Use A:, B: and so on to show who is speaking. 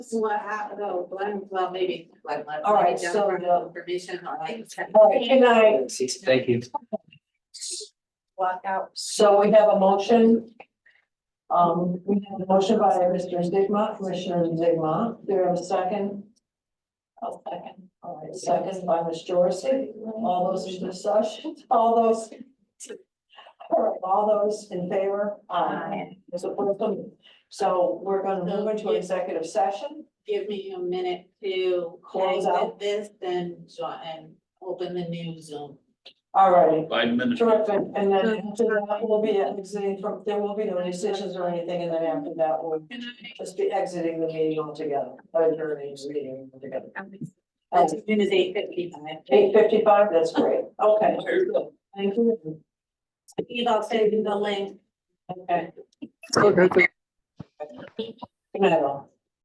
A: This is what happened, though, Glenn, well, maybe Glenn left.
B: All right, so,
A: Jennifer had Information on like.
B: All right, good night.
C: Thank you.
A: Walk out.
B: So we have a motion. Um, we have a motion by Mr. Zigma, Commissioner Zigma. There are a second. A second. All right, second by Ms. Jorsy. All those in discussion, all those. All right, all those in favor? There's a person. So we're gonna move into executive session.
A: Give me a minute to close
B: Close out.
A: out this, then join and open the new Zoom.
B: All righty.
C: Five minutes.
B: Terrific, and then after that will be exiting from, there will be no decisions or anything, and then after that, we'll
A: Good
B: just be exiting the meeting altogether, adjourning the meeting altogether.
A: As soon as eight fifty-five.
B: Eight fifty-five, that's great, okay, thank you,
A: Steve, I'll send you the link.
B: okay. Good night, all.